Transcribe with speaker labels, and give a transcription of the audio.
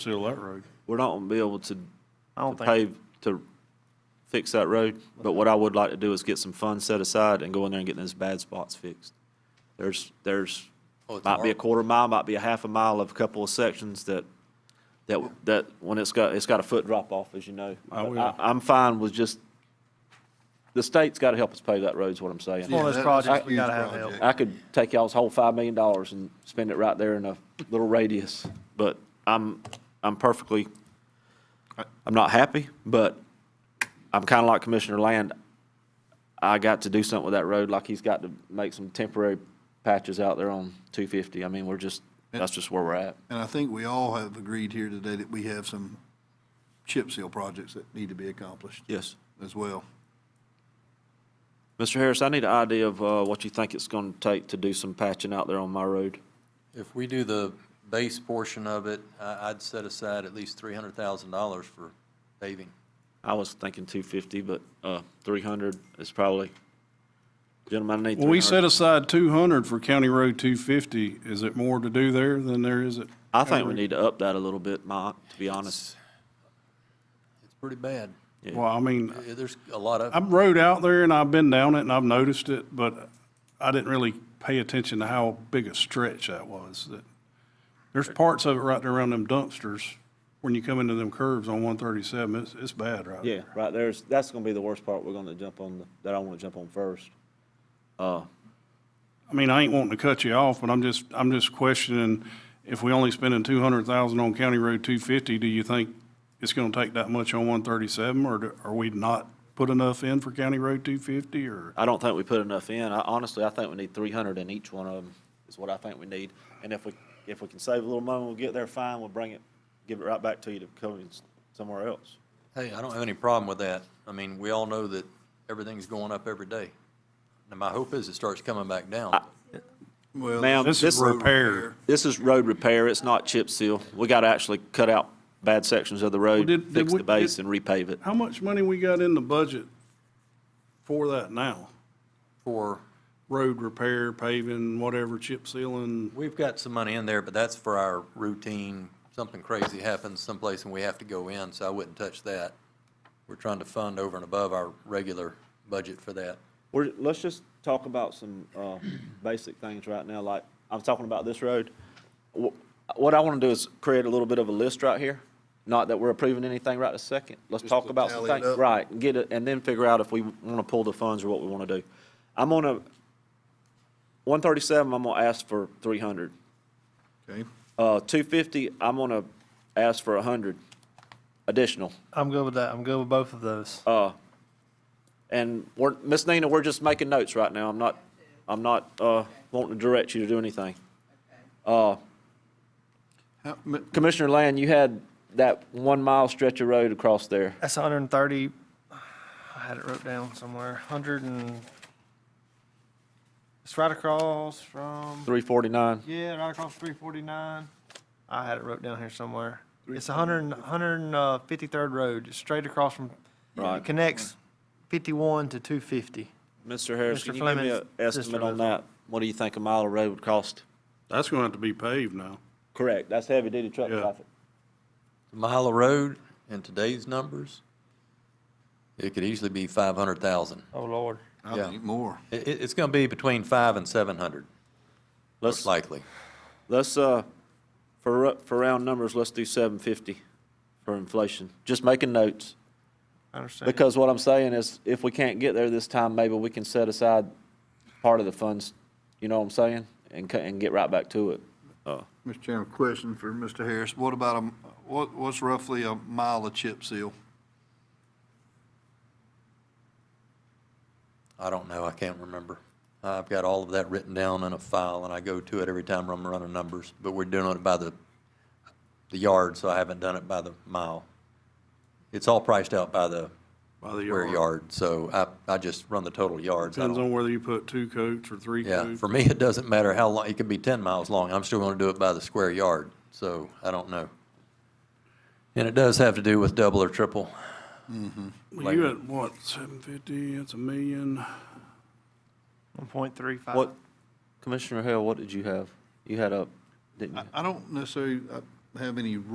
Speaker 1: seal that road.
Speaker 2: We're not gonna be able to
Speaker 3: I don't
Speaker 2: to
Speaker 3: think,
Speaker 2: pave, to fix that road, but what I would like to do is get some funds set aside and go in there and get those bad spots fixed. There's, there's,
Speaker 4: Oh, it's
Speaker 2: might be a
Speaker 4: hard.
Speaker 2: quarter mile, might be a half a mile of a couple of sections that, that, that, when it's got, it's got a foot drop off, as you know.
Speaker 1: I will.
Speaker 2: I'm fine with just, the state's gotta help us pave that road, is what I'm
Speaker 3: it's one
Speaker 2: saying.
Speaker 3: of those
Speaker 4: Yeah,
Speaker 3: projects
Speaker 4: that's a
Speaker 3: we gotta
Speaker 4: huge
Speaker 3: have help.
Speaker 4: project.
Speaker 2: I could take y'all's whole five million dollars and spend it right there in a little radius, but I'm, I'm perfectly, I'm not happy, but I'm kind of like Commissioner Land. I got to do something with that road, like he's got to make some temporary patches out there on two fifty. I mean, we're just, that's just where we're at.
Speaker 4: And I think we all have agreed here today that we have some chip seal projects that need to be accomplished
Speaker 2: Yes.
Speaker 4: as well.
Speaker 2: Mr. Harris, I need an idea of, uh, what you think it's gonna take to do some patching out there on my road.
Speaker 5: If we do the base portion of it, I, I'd set aside at least three hundred thousand dollars for paving.
Speaker 2: I was thinking two fifty, but, uh, three hundred is probably, gentlemen, I need
Speaker 1: Well, we set
Speaker 2: 300.
Speaker 1: aside two hundred for County Road two fifty. Is it more to do there than there is at?
Speaker 2: I think we need to up that a little bit, Mike, to be honest.
Speaker 5: It's pretty bad.
Speaker 1: Well, I mean,
Speaker 5: Yeah, There's a lot of,
Speaker 1: I've rode out there and I've been down it and I've noticed it, but I didn't really pay attention to how big a stretch that was. That- There's parts of it right there around them dumpsters, when you come into them curves on one thirty-seven, it's, it's bad right there.
Speaker 2: Yeah, right there's, that's gonna be the worst part we're gonna jump on, that I wanna jump on first. Uh,
Speaker 1: I mean, I ain't wanting to cut you off, but I'm just, I'm just questioning, if we only spending two hundred thousand on County Road two fifty, do you think it's gonna take that much on one thirty-seven, or do- are we not put enough in for County Road two fifty, or?
Speaker 2: I don't think we put enough in. I honestly, I think we need three hundred in each one of them is what I think we need. And if we, if we can save a little money, when we get there, fine, we'll bring it, give it right back to you to cover it s- somewhere else.
Speaker 5: hey, I don't have any problem with that. I mean, we all know that everything's going up every day. And my hope is it starts coming back down.
Speaker 4: Well,
Speaker 2: Ma'am,
Speaker 1: This is
Speaker 2: this,
Speaker 1: repair.
Speaker 2: this is road repair. It's not chip seal. We gotta actually cut out bad sections of the road,
Speaker 1: did- did
Speaker 2: fix
Speaker 1: we-
Speaker 2: the base
Speaker 1: did-
Speaker 2: and repave it.
Speaker 1: How much money we got in the budget for that now?
Speaker 5: For,
Speaker 1: Road repair, paving, whatever, chip sealing?
Speaker 5: we've got some money in there, but that's for our routine, something crazy happens someplace and we have to go in, so I wouldn't touch that. We're trying to fund over and above our regular budget for that.
Speaker 2: We're, let's just talk about some, uh, basic things right now, like, I'm talking about this road. Wh- What I wanna do is create a little bit of a list right here, not that we're approving anything right this second. Let's
Speaker 4: Just
Speaker 2: talk
Speaker 4: to
Speaker 2: about some
Speaker 4: tally it
Speaker 2: things,
Speaker 4: up.
Speaker 2: right, and get it, and then figure out if we wanna pull the funds or what we wanna do. I'm gonna, one thirty-seven, I'm gonna ask for three hundred.
Speaker 4: Okay,
Speaker 2: Uh, two fifty, I'm gonna ask for a hundred additional.
Speaker 3: I'm good with that. I'm good with both of those.
Speaker 2: Uh, And we're, Miss Nina, we're just making notes right now. I'm not, I'm not, uh, wanting to direct you to do anything. Uh,
Speaker 4: How- m-
Speaker 2: Commissioner Land, you had that one mile stretch of road across there.
Speaker 3: That's hundred and thirty, I had it wrote down somewhere, hundred and, it's right across from,
Speaker 2: Three forty-nine.
Speaker 3: yeah, right across three forty-nine. I had it wrote down here somewhere. It's a hundred and, hundred and uh, fifty-third road, It's straight across from,
Speaker 2: Right.
Speaker 3: it connects fifty-one to two fifty.
Speaker 2: Mr. Harris,
Speaker 3: Mr.
Speaker 2: can you give me
Speaker 3: Fleming's
Speaker 2: an estimate
Speaker 3: sister
Speaker 2: on
Speaker 3: lives
Speaker 2: that? What do you think a mile of road would cost?
Speaker 1: That's gonna have to be paved now.
Speaker 2: Correct, that's heavy-duty truck
Speaker 1: Yeah.
Speaker 2: traffic.
Speaker 5: mile of road in today's numbers, it could easily be five hundred thousand.
Speaker 3: Oh, Lord.
Speaker 4: I
Speaker 5: Yeah.
Speaker 4: think more.
Speaker 5: It, it, it's gonna be between five and seven hundred,
Speaker 2: Let's,
Speaker 5: most likely.
Speaker 2: let's, uh, for, ru- for round numbers, let's do seven fifty for inflation. Just making notes.
Speaker 3: I understand.
Speaker 2: Because what I'm saying is, if we can't get there this time, maybe we can set aside part of the funds, you know what I'm saying? And, co- and get right back to it. Uh,
Speaker 4: Mr. Chairman, question for Mr. Harris. What about a, m- what, what's roughly a mile of chip seal?
Speaker 5: I don't know, I can't remember. I've got all of that written down in a file, and I go to it every time I'm running numbers, but we're doing it by the, the yard, so I haven't done it by the mile. It's all priced out by the
Speaker 1: By the
Speaker 5: square yard, so I, I just run the total yards. I
Speaker 1: Depends
Speaker 5: don't-
Speaker 1: on whether you put two coats or three
Speaker 5: Yeah,
Speaker 1: coats.
Speaker 5: for me, it doesn't matter how long, it could be 10 miles long, I'm still going to do it by the square yard, so I don't know. And it does have to do with double or triple.
Speaker 1: Well, you at what, seven fifty, that's a million.
Speaker 3: One point three five.
Speaker 2: What, Commissioner Hale, what did you have? You had a, didn't you?
Speaker 4: I, I don't necessarily uh, have any